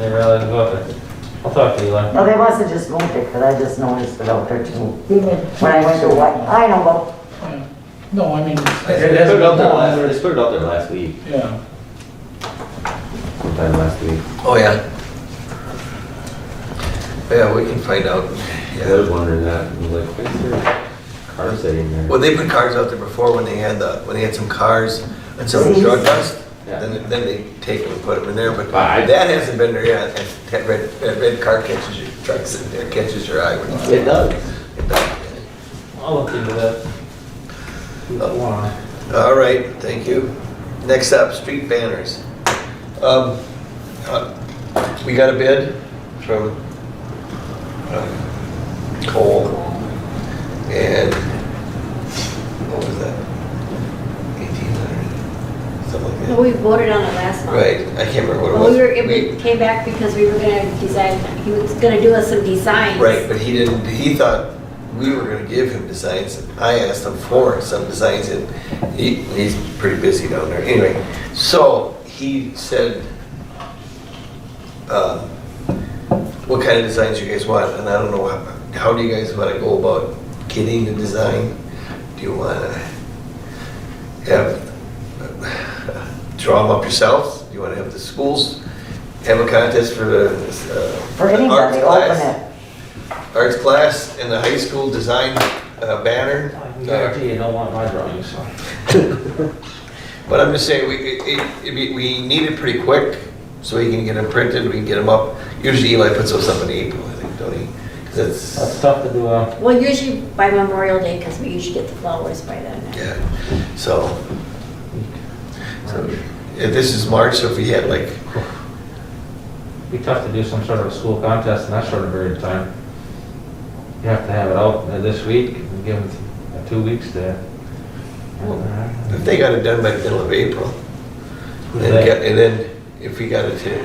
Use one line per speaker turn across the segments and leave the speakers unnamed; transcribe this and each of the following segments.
didn't realize about it. I'll talk to Eli.
No, they must have just moved it, because I just noticed it out there too.
When
When I went to what, I know, but
No, I mean.
They put it out there last, they put it out there last week,
Yeah,
sometime last week.
Oh, yeah. Yeah, we can find out.
Yeah, I was
Yeah.
wondering that, I was like, why is there a car sitting there?
Well, they put cars out there before when they had the, when they had some cars and some
Disease.
drug dust.
Yeah.
Then, then they take them and put them in there, but
But I-
that hasn't been there yet. And That red, that red car catches your, truck sitting there catches your eye. when you-
It does.
It does.
I'll look into that. Wow.
All right, thank you. Next up, street banners. Um, uh, We got a bid from um, Cole, and what was that? 1800, something
No,
like
we voted on it last
that.
month.
Right, I can't remember what it
Well,
was.
we were, it came back because we were gonna design, he was gonna do us some designs.
Right, but he didn't, he thought we were gonna give him designs. I asked him for some designs and he, he's pretty busy down there. Anyway, so he said, um, what kind of designs you guys want? And I don't know, how- how do you guys wanna go about getting the design? Do you wanna have, draw them up yourselves? Do you wanna have the schools have a contest for the, uh,
for
arts
anybody, open
class?
it.
arts class and the high school design uh, banner. Uh,
I can guarantee you don't want my drawings.
But I'm just saying, we, it- it- it'd be- we need it pretty quick, so we can get them printed, we can get them up. Usually Eli puts those up in April, I think, don't he? 'Cause
That's
it's,
tough to do, uh,
Well, usually by Memorial Day, because we usually get the flowers by then.
yeah, so. so, If this is March, so if we had like,
be tough to do some sort of a school contest in that short of period of time. You have to have it out this week, and give them two weeks to. uh,
if they got it done by the middle of April, and
They-
get- and then if we got it to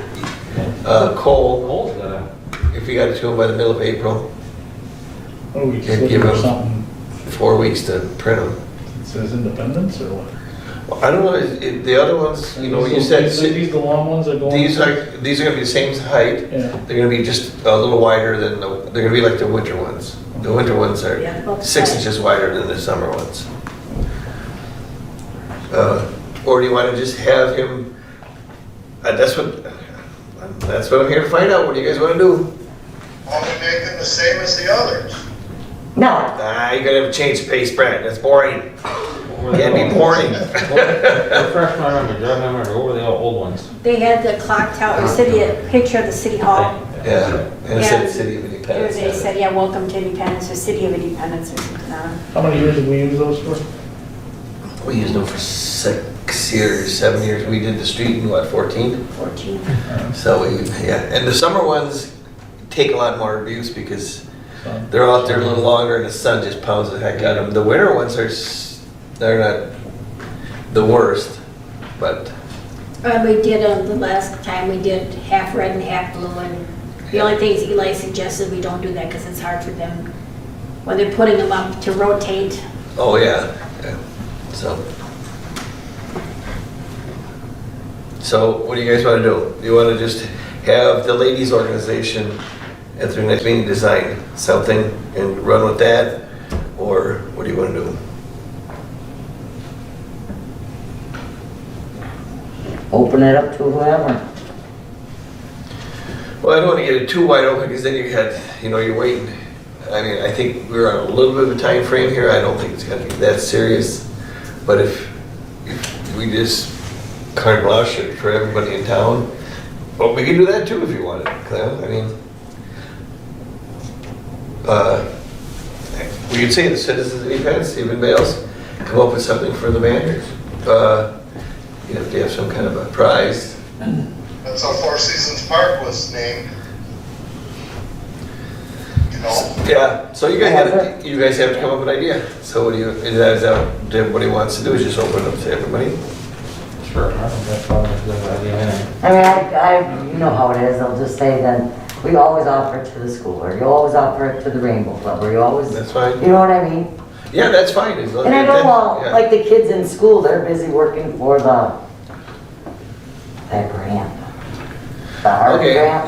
uh, Cole,
Cole's gotta,
if we got it to him by the middle of April,
or we
Yeah,
just
give
look for
him-
something
four weeks to print them.
that says independence or what?
Well, I don't know, it- it- the other ones, you know, you
These-
said,
these- These the long ones are going.
these are, these are gonna be the same height,
Yeah,
they're gonna be just a little wider than the, they're gonna be like the winter ones. The winter ones are
Yeah, about
six
that.
inches wider than the summer ones. Uh, Or do you wanna just have him, uh, that's what, that's what I'm here to find out, what do you guys wanna do?
Are we making the same as the others?
No,
Ah, you're gonna have to change pace, Brad, that's boring,
what were they
can't be
called?
boring.
Refresh my memory, jog my memory, what were the old ones?
They had the clock tower, or city, a picture of the city hall.
Yeah, and it said
Yeah.
City of
There
Independence.
They said, yeah, welcome to Independence, or City of Independence, or something. I don't know.
how many years did we use those for?
We used them for six years, seven years. We did the street in what, 14?
14.
So we, yeah. And the summer ones take a lot more abuse because
So,
they're out there a little longer and the sun just pounds the heck out of them. The winter ones are, s- they're not the worst, but
Uh, we did, uh, the last time we did half red and half blue, and the only thing is Eli suggested we don't do that, because it's hard for them, when they're putting them up, to rotate.
oh yeah. yeah. So. So what do you guys want to do? Do you want to just have the ladies organization at their next meeting design something and run with that? Or what do you want to do?
open it up to whoever.
Well, I don't want to get it too wide open because then you had, you know, you're waiting. I mean, I think we're on a little bit of a time frame here. I don't think it's going to be that serious. But if, if we just carte blanche it for everybody in town, well, we can do that too if you want it, Clem. I mean, uh, we could say the citizens of events, if anybody else, come up with something for the banners. Uh, you know, if they have some kind of a prize.
That's how Four Seasons Park was named. You know,
Yeah, so you guys have, you guys have to come up with an idea. So what do you, is that, is that what everybody wants to do, is just open it up to everybody?
Sure. I think that's probably a good idea, anyway.
I mean, I, I, you know how it is, I'll just say then, we always offer it to the school, or you always offer it to the Rainbow Club, or you always, you
That's fine.
know what I mean?
Yeah, that's fine. as long
And I
as
don't
that-
want,
yeah.
like, the kids in school, they're busy working for the, that grant. The art
Okay,
grant.